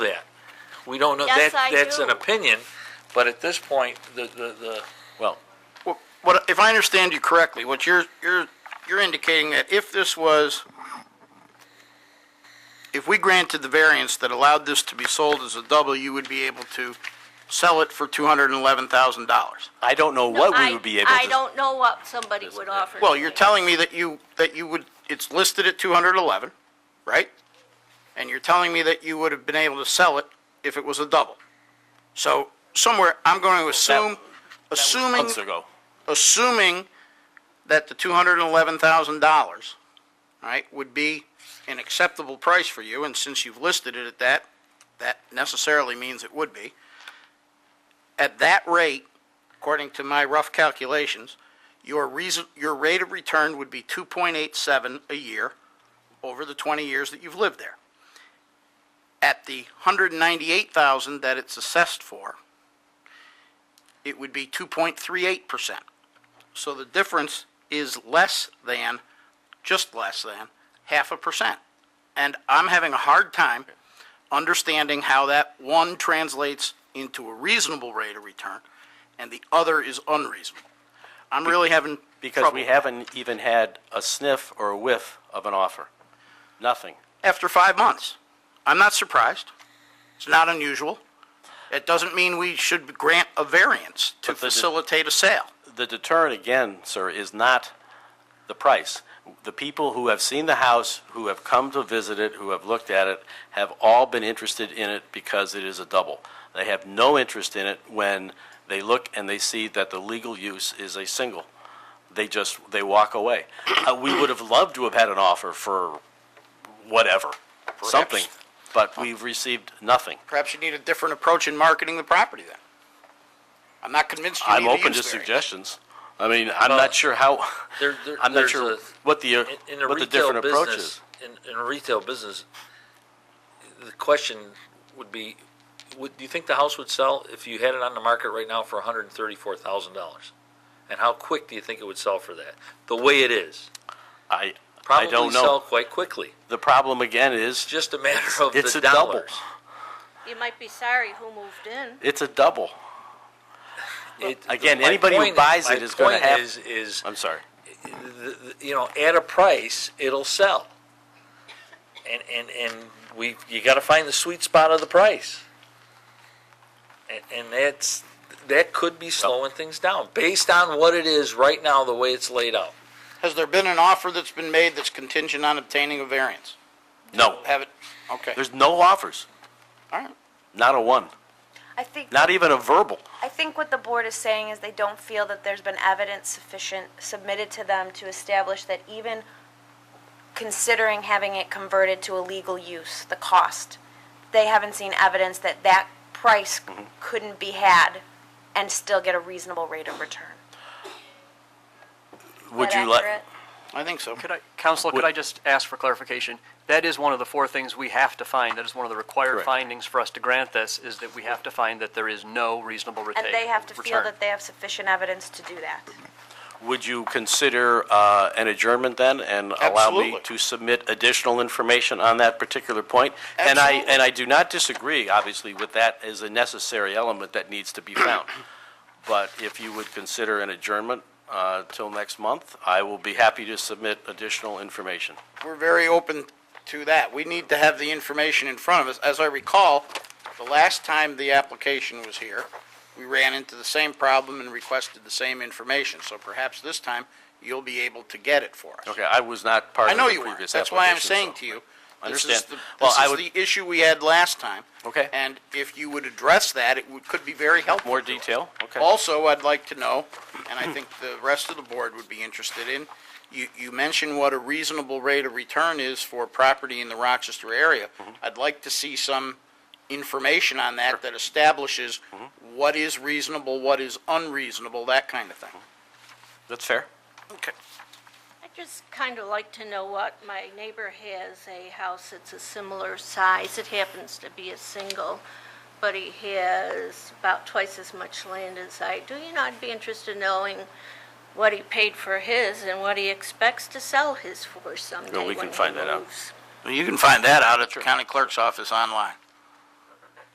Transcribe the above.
We don't know, Yes, that, I that's an do. opinion, but at this point, the, the, the, well, Well, What, if I understand you correctly, what you're, you're, you're indicating that if this was, if we granted the variance that allowed this to be sold as a double, you would be able to sell it for two hundred and eleven thousand dollars. I don't know No, what I- we would be able I to, don't know what somebody would offer. Well, to you're me. telling me that you, that you would, it's listed at two hundred and eleven, right? And you're telling me that you would have been able to sell it if it was a double. So somewhere, I'm going to assume, assuming months ago. assuming that the two hundred and eleven thousand dollars, right, would be an acceptable price for you, and since you've listed it at that, that necessarily means it would be. At that rate, according to my rough calculations, your reason, your rate of return would be two point eight seven a year over the twenty years that you've lived there. At the hundred and ninety-eight thousand that it's assessed for, it would be two point three eight percent. So the difference is less than, just less than, half a percent. And I'm having a hard time understanding how that one translates into a reasonable rate of return and the other is unreasonable. I'm really having Because we trouble. haven't even had a sniff or a whiff of an offer. Nothing. After five months, I'm not surprised. It's not unusual. It doesn't mean we should grant a variance to But the- facilitate a sale. The deterrent, again, sir, is not the price. The people who have seen the house, who have come to visit it, who have looked at it, have all been interested in it because it is a double. They have no interest in it when they look and they see that the legal use is a single. They just, they walk away. Uh, We would have loved to have had an offer for whatever, something, but we've received nothing. Perhaps you need a different approach in marketing the property then. I'm not convinced you need I'm a open use to variance. suggestions. I mean, I'm Well, not sure how, there- there- I'm not there's sure a- what the, uh, in, in a what the retail different approach business, is. in, in a retail business, the question would be, would, do you think the house would sell if you had it on the market right now for hundred and thirty-four thousand dollars? And how quick do you think it would sell for that? The way it is? I, I Probably don't sell know. quite quickly. The problem again is, Just a matter of it's the a double. dollars. You might be sorry who moved in. it's a double. It- Again, my anybody who point buys my it is gonna point have- Is, is, I'm sorry. the- the- you know, at a price, it'll sell. And, and, and we, you gotta find the sweet spot of the price. And, and that's, that could be slowing things down, based on what it is right now, the way it's laid out. Has there been an offer that's been made that's contingent on obtaining a variance? No, Have it, okay, there's no offers, all right. not a one, I think, not even a verbal. I think what the board is saying is they don't feel that there's been evidence sufficient submitted to them to establish that even considering having it converted to a legal use, the cost, they haven't seen evidence that that price Mm-hmm. couldn't be had and still get a reasonable rate of return. Would Is that you let? accurate? I think so. Could I, Counselor, could Would- I just ask for clarification? That is one of the four things we have to find, that is one of the required Correct. findings for us to grant this, is that we have to find that there is no reasonable retain. And they have to feel return. that they have sufficient evidence to do that. Would you consider uh, an adjournment then and allow me Absolutely. to submit additional information on that particular point? And I, Absolutely. and I do not disagree, obviously, with that as a necessary element that needs to be found. But if you would consider an adjournment uh, till next month, I will be happy to submit additional information. We're very open to that. We need to have the information in front of us. As I recall, the last time the application was here, we ran into the same problem and requested the same information, so perhaps this time you'll be able to get it for us. Okay, I was not part I of the know previous you weren't. application. That's why I'm saying so- to you, I this is understand. the, Well, this I is would- the issue we had last time. Okay. And if you would address that, it would, could be very helpful. More to us. detail? Okay. Also, I'd like to know, and I think the rest of the board would be interested in, you, you mentioned what a reasonable rate of return is for property in the Rochester area. I'd like to see some information on that that establishes what is reasonable, what is unreasonable, that kind of thing. That's fair. Okay. I'd just kind of like to know what, my neighbor has a house that's a similar size, it happens to be a single, but he has about twice as much land as I do. You know, I'd be interested in knowing what he paid for his and what he expects to sell his for someday Well, we when can he find that out. moves. You can find that out at the county clerk's office online.